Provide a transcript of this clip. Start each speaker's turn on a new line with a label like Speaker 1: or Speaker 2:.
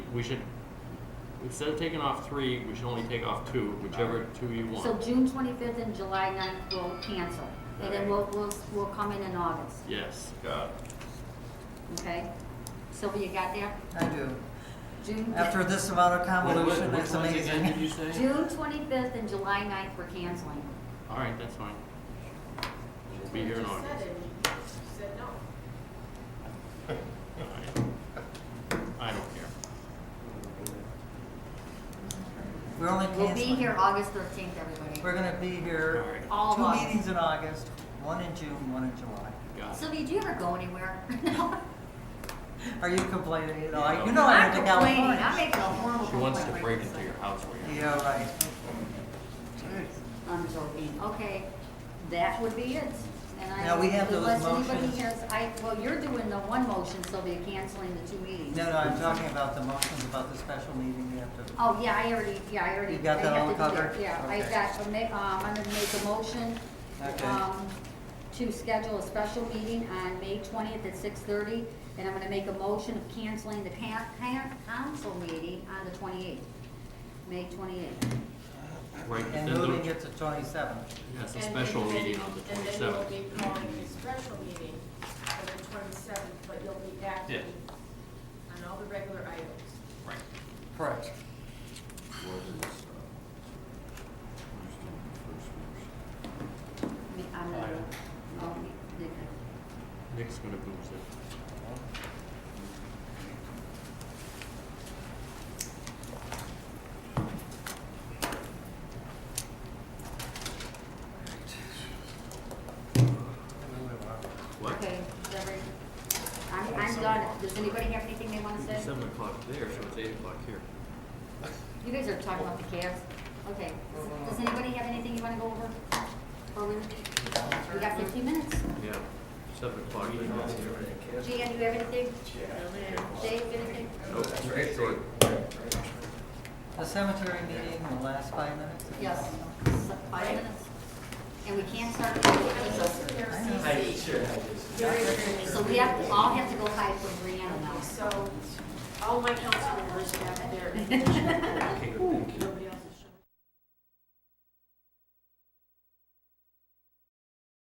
Speaker 1: we should, instead of taking off three, we should only take off two, whichever two you
Speaker 2: So
Speaker 1: want.
Speaker 2: June twenty-fifth and July 9th will cancel, and then we'll, we'll, we'll come in in August,
Speaker 1: Yes,
Speaker 3: Got it.
Speaker 2: okay? Sylvia, you got there?
Speaker 4: I do.
Speaker 2: June,
Speaker 4: After this amount of convolution, it's amazing.
Speaker 1: say?
Speaker 2: June twenty-fifth and July 9th we're canceling.
Speaker 1: All right, that's fine. We'll be here in August.
Speaker 5: Said no.
Speaker 1: All right. I don't care.
Speaker 4: We're only
Speaker 2: We'll be
Speaker 4: canceling.
Speaker 2: here August thirteenth, everybody.
Speaker 4: We're gonna be here,
Speaker 1: All right.
Speaker 2: All of
Speaker 4: two
Speaker 2: August.
Speaker 4: meetings in August, one in June, one in July.
Speaker 1: Got it.
Speaker 2: Sylvia, do you ever go anywhere? No.
Speaker 4: Are you complaining at all?
Speaker 1: No.
Speaker 4: You know I went to
Speaker 2: I'm complaining. I
Speaker 4: California.
Speaker 2: make a horrible
Speaker 1: She wants to
Speaker 2: complaint.
Speaker 1: break into your house where you're.
Speaker 4: Yeah, right.
Speaker 2: I'm joking, okay, that would be it. And I-
Speaker 4: Now, we have those
Speaker 2: Unless
Speaker 4: motions.
Speaker 2: anybody has, I, well, you're doing the one motion, Sylvia, canceling the two meetings.
Speaker 4: No, no, I'm talking about the motions about the special meeting after.
Speaker 2: Oh, yeah, I already, yeah, I already.
Speaker 4: You got that
Speaker 2: I have
Speaker 4: all
Speaker 2: to do
Speaker 4: covered?
Speaker 2: Yeah, I
Speaker 4: Okay.
Speaker 2: got, to make- um, I'm gonna make a motion,
Speaker 4: Okay.
Speaker 2: um, to schedule a special meeting on May twentieth at six thirty, and I'm gonna make a motion of canceling the ca- ca- council meeting on the twenty-eighth, May twenty-eighth.
Speaker 1: Right,
Speaker 4: And
Speaker 1: then
Speaker 4: moving
Speaker 1: there-
Speaker 4: it to twenty-seventh.
Speaker 1: That's a
Speaker 5: And
Speaker 1: special
Speaker 5: then we'll-
Speaker 1: meeting on the
Speaker 5: And then
Speaker 1: twenty-seventh.
Speaker 5: you'll be calling a special meeting on the twenty-seventh, but you'll be acting on all the regular items.
Speaker 1: Right.
Speaker 4: Correct.
Speaker 2: I mean, I'm gonna, oh, the-
Speaker 1: Nick's gonna booze it. What?
Speaker 2: okay, Deborah, I'm, I'm done. Does anybody have anything they wanna say?
Speaker 1: It's seven o'clock there, so it's eight o'clock here.
Speaker 2: You guys are talking about the Cavs. Okay, does anybody have anything you wanna go over? Or we, we got fifteen minutes.
Speaker 1: Yeah, seven o'clock. I think that's here.
Speaker 2: Jan, you have anything? Dave, anything?
Speaker 1: Nope, so
Speaker 4: The cemetery meeting will last five minutes?
Speaker 2: Yes, So, five minutes. And we can't start the meeting,
Speaker 5: So sit
Speaker 2: so,
Speaker 5: there,
Speaker 4: I know.
Speaker 5: CC. Very, very
Speaker 2: so we have, to all have to go hide from Brianna now.
Speaker 5: So all my council members have their.
Speaker 1: Ooh,